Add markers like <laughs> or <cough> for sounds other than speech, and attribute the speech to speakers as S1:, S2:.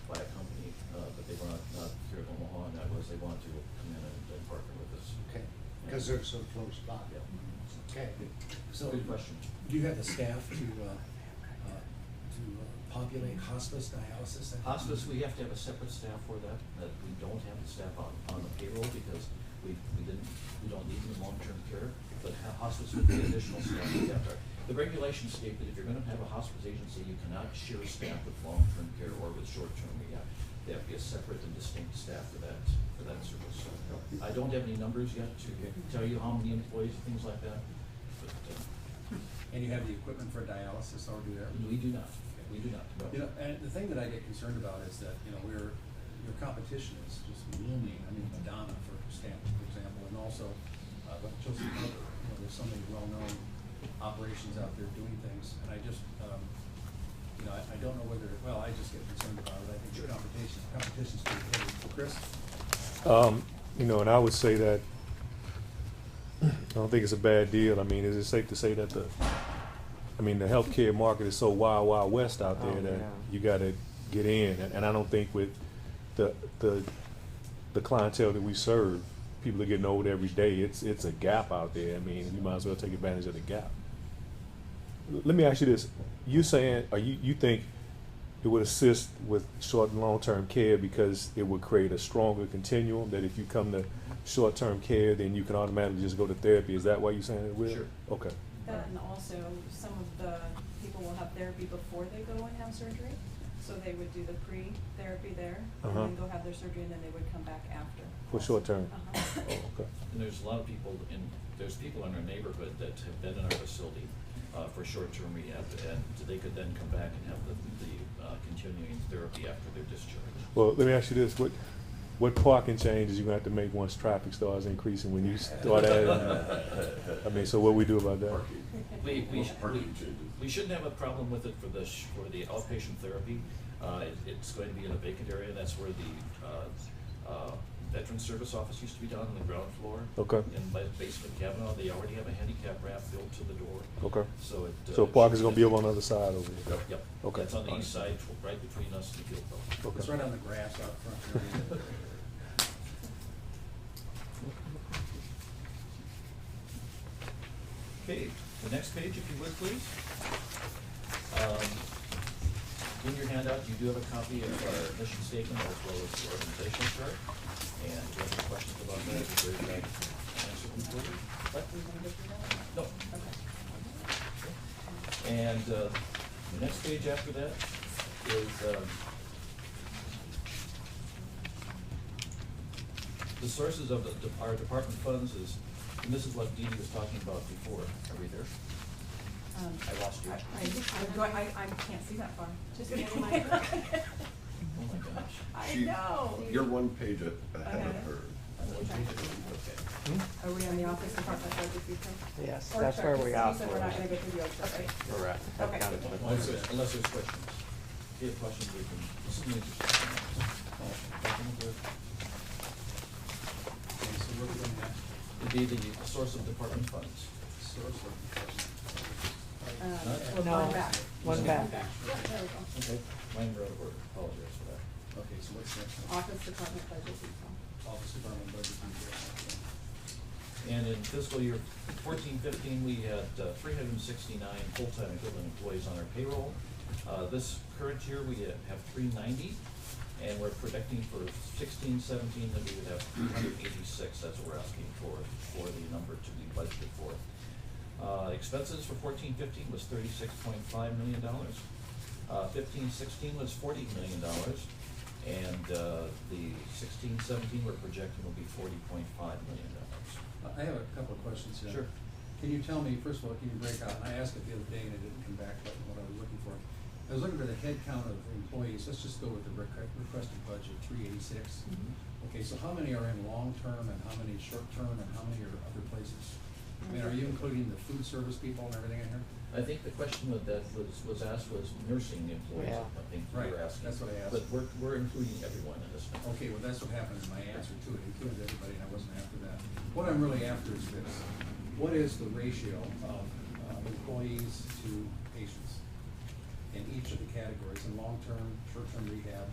S1: uh,
S2: because they're so close by. Okay.
S3: So,
S1: Good question.
S3: do you have the staff to, uh, uh, to uh, populate hospice, dialysis? and-
S1: Hospice, we have to have a separate staff for that, that we don't have the staff on, on the payroll because we, we didn't, we don't need them in long-term care, but ho- hospice would be additional staff we have there. The regulations state that if you're gonna have a hospice agency, you cannot share staff with long-term care or with short-term rehab. They have to be a separate and distinct staff for that, for that service. I don't have any numbers yet to tell you how many employees, things like that, but, uh,
S4: And you have the equipment for dialysis already there?
S1: we do not, we do not. no.
S4: You know, and the thing that I get concerned about is that, you know, we're, your competition is just looming. I mean, Madonna, for example, for example, and also, uh, like Chelsea Harbor, you know, there's so many well-known operations out there doing things, and I just, um, you know, I, I don't know whether, well, I just get concerned about it. I think your competition, competition's too heavy. Chris?
S5: Um, you know, and I would say that, I don't think it's a bad deal. I mean, is it safe to say that the, I mean, the healthcare market is so wild, wild west out there
S6: Oh,
S5: that
S6: yeah.
S5: you gotta get in, and, and I don't think with the, the, the clientele that we serve, people are getting old every day, it's, it's a gap out there. I mean, you might as well take advantage of the gap. L- Let me ask you this, you saying, or you, you think it would assist with short and long-term care because it would create a stronger continuum, that if you come to short-term care, then you can automatically just go to therapy, is that why you're saying it will?
S1: Sure.
S5: Okay.
S7: That and also, some of the people will have therapy before they go and have surgery, so they would do the pre-therapy there, and
S5: Uh-huh.
S7: then go have their surgery, and then they would come back after.
S5: For short term?
S7: Uh-huh.
S1: <laughs>
S5: Oh, okay.
S1: And there's a lot of people in, there's people in our neighborhood that have been in our facility uh, for short-term rehab, and they could then come back and have the, the uh, continuing therapy after their discharge.
S5: Well, let me ask you this, what, what parking changes you gonna have to make once traffic starts increasing when
S1: <laughs>
S5: you start adding? I mean, so what we do about that?
S1: We, we,
S3: Well,
S1: sh-
S3: part
S1: we,
S3: of it changes.
S1: we shouldn't have a problem with it for the, sh- for the outpatient therapy. Uh, it- It's going to be in a vacant area, that's where the uh, uh, Veteran Service Office used to be down on the ground floor.
S5: Okay.
S1: In my basement cabin, they already have a handicap ramp built to the door.
S5: Okay.
S1: So it. uh,
S5: So parking's gonna be
S1: should-
S5: over on the other side over there?
S1: Yep.
S5: Okay.
S1: It's on the east side, tw- right between us and the field. though.
S5: Okay.
S4: It's right on the grass out front.
S1: <laughs> Okay, the next page, if you would, please. Um, In your handout, you do have a copy of our mission statement as well as the organizational chart. And if you have any questions about that, I'd be very glad to answer them for you. But
S7: We're gonna go through
S1: No.
S7: that? Okay.
S1: And uh, the next page after that is um, the sources of the- our department funds is, and this is what Dee Dee was talking about before. Are we there?
S7: Um,
S1: I lost you.
S7: I, I'm going, I, I can't see that far. Just
S6: Give me
S7: kidding.
S6: my mic.
S7: <laughs>
S1: Oh, my gosh.
S7: I
S3: She-
S7: know.
S3: You're one page a- ahead
S7: Okay.
S3: of her.
S1: Okay.
S7: Are we on the office department budget detail?
S6: Yes,
S7: Or
S6: that's
S7: chart,
S6: where
S7: 'cause
S6: we
S7: you
S6: are
S7: said we're not
S6: for-
S7: gonna go through the org chart, right?
S6: Correct.
S7: Okay.
S1: Unless there's, unless there's questions. If you have questions, we can, this is an interesting. one.
S4: Okay, so we're doing that
S1: It'd be the source of department funds.
S4: source of.
S7: Um,
S1: Not-
S7: one
S6: No.
S7: back.
S6: One back.
S7: Yeah, there we go.
S1: Okay, mine were out of order, apologize for that.
S4: Okay, so what's next?
S7: Office department budget detail.
S4: Office Department Budget Detail.
S1: And in fiscal year fourteen fifteen, we had uh, three hundred and sixty-nine full-time equivalent employees on our payroll. Uh, This current year, we ha- have three ninety, and we're projecting for sixteen seventeen that we would have three hundred and eighty-six. That's what we're asking for, for the number to be budgeted for. Uh, Expenses for fourteen fifteen was thirty-six point five million dollars. Uh, Fifteen sixteen was forty million dollars, and uh, the sixteen seventeen we're projecting will be forty point five million dollars.
S4: I have a couple of questions here.
S1: Sure.
S4: Can you tell me, first of all, can you break out, and I asked it the other day and it didn't come back, but what I was looking for. I was looking for the head count of employees, let's just go with the requ- requested budget, three eighty-six. Okay, so how many are in long-term and how many short-term and how many are other places? I mean, are you including the food service people and everything in here?
S1: I think the question that that was, was asked was nursing employees,
S6: Yeah.
S1: I think you
S4: Right,
S1: were asking.
S4: that's what I asked.
S1: But we're, we're including everyone in this now.
S4: Okay, well, that's what happened in my answer to it, included everybody, and I wasn't after that. What I'm really after is this, what is the ratio of uh, employees to patients in each of the categories, in long-term, short-term rehab,